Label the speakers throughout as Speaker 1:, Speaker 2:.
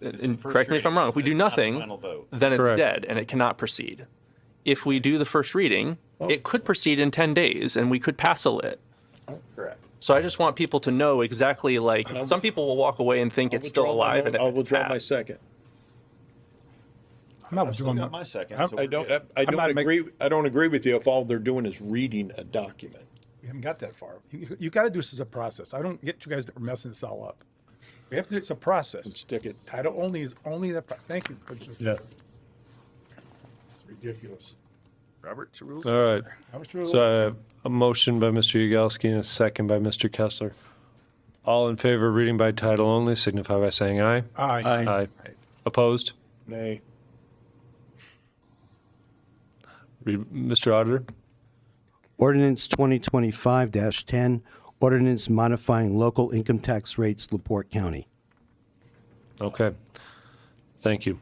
Speaker 1: and correct me if I'm wrong, if we do nothing, then it's
Speaker 2: Correct.
Speaker 1: dead and it cannot proceed. If we do the first reading, it could proceed in 10 days and we could pass a lit.
Speaker 3: Correct.
Speaker 1: So I just want people to know exactly like, some people will walk away and think it's still
Speaker 4: Withdraw my
Speaker 1: alive
Speaker 4: mo-
Speaker 1: and it
Speaker 4: I'll withdraw my
Speaker 1: passed.
Speaker 4: second.
Speaker 2: I'm not withdrawing
Speaker 3: got
Speaker 2: my-
Speaker 3: my second,
Speaker 2: I'm-
Speaker 3: so
Speaker 4: I
Speaker 3: we're
Speaker 4: don't,
Speaker 3: good.
Speaker 4: I- I
Speaker 2: not
Speaker 4: don't
Speaker 2: make-
Speaker 4: agree, I don't agree with you if all they're doing is reading a document.
Speaker 2: We haven't got that far. You, you got to do this as a process. I don't get you guys that are messing this all up. We have to, it's a process.
Speaker 4: Stick it,
Speaker 2: Title only is only the, pro- thank you.
Speaker 5: Yeah,
Speaker 4: it's ridiculous.
Speaker 3: Robert's rules.
Speaker 5: all right.
Speaker 2: I was really-
Speaker 5: So I have a motion by Mr. Yagowski and a second by Mr. Kessler. All in favor of reading by title only signify by saying aye.
Speaker 2: Aye.
Speaker 5: Aye. Opposed?
Speaker 4: Nay,
Speaker 5: Read, Mr. Auditor?
Speaker 6: Ordinance 2025-10, ordinance modifying local income tax rates, LaPorte County.
Speaker 5: Okay. Thank you.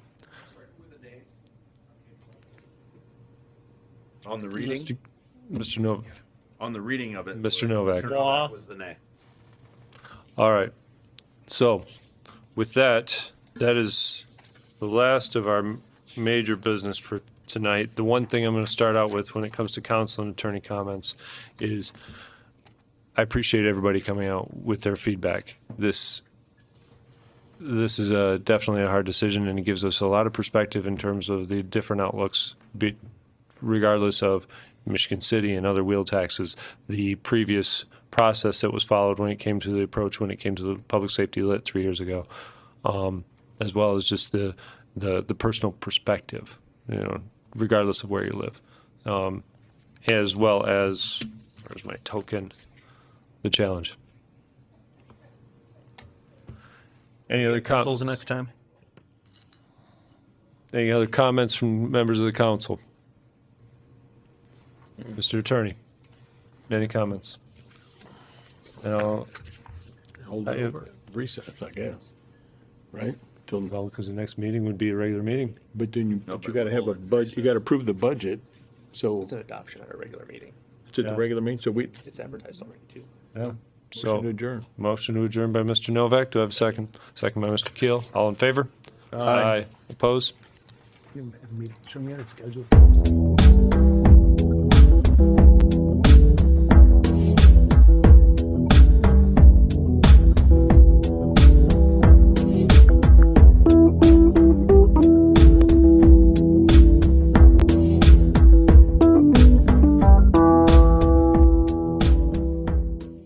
Speaker 3: On the reading,
Speaker 5: Mr. Novak.
Speaker 3: on the reading of it.
Speaker 5: Mr. Novak.
Speaker 3: Novak Was the nay.
Speaker 5: All right. So with that, that is the last of our m- major business for tonight. The one thing I'm going to start out with when it comes to council and attorney comments is I appreciate everybody coming out with their feedback. This this is a definitely a hard decision and it gives us a lot of perspective in terms of the different outlooks be, regardless of Michigan City and other wheel taxes, the previous process that was followed when it came to the approach when it came to the public safety lit three years ago, um, as well as just the, the the personal perspective, you know, regardless of where you live, um, as well as where's my token, the challenge. Any other
Speaker 7: Pencils
Speaker 5: comments?
Speaker 7: next time.
Speaker 5: Any other comments from members of the council? Mr. Attorney, any comments? No,
Speaker 4: hold
Speaker 5: I-
Speaker 4: it over, recess, I guess, right? Till-
Speaker 5: well, because the next meeting would be a regular meeting.
Speaker 4: But then you, but you gotta have a budget, you gotta approve the budget, so
Speaker 1: It's an adoption at a regular meeting.
Speaker 4: it's at the
Speaker 5: yeah.
Speaker 4: regular meeting, so we,
Speaker 1: It's advertised already too.
Speaker 5: Yeah.
Speaker 4: motion to
Speaker 5: So,
Speaker 4: adjourn.
Speaker 5: motion to adjourn by Mr. Novak. Do I have a second? Second by Mr. Keel. All in favor? Aye. Opposed?
Speaker 2: Show me how to schedule. for this.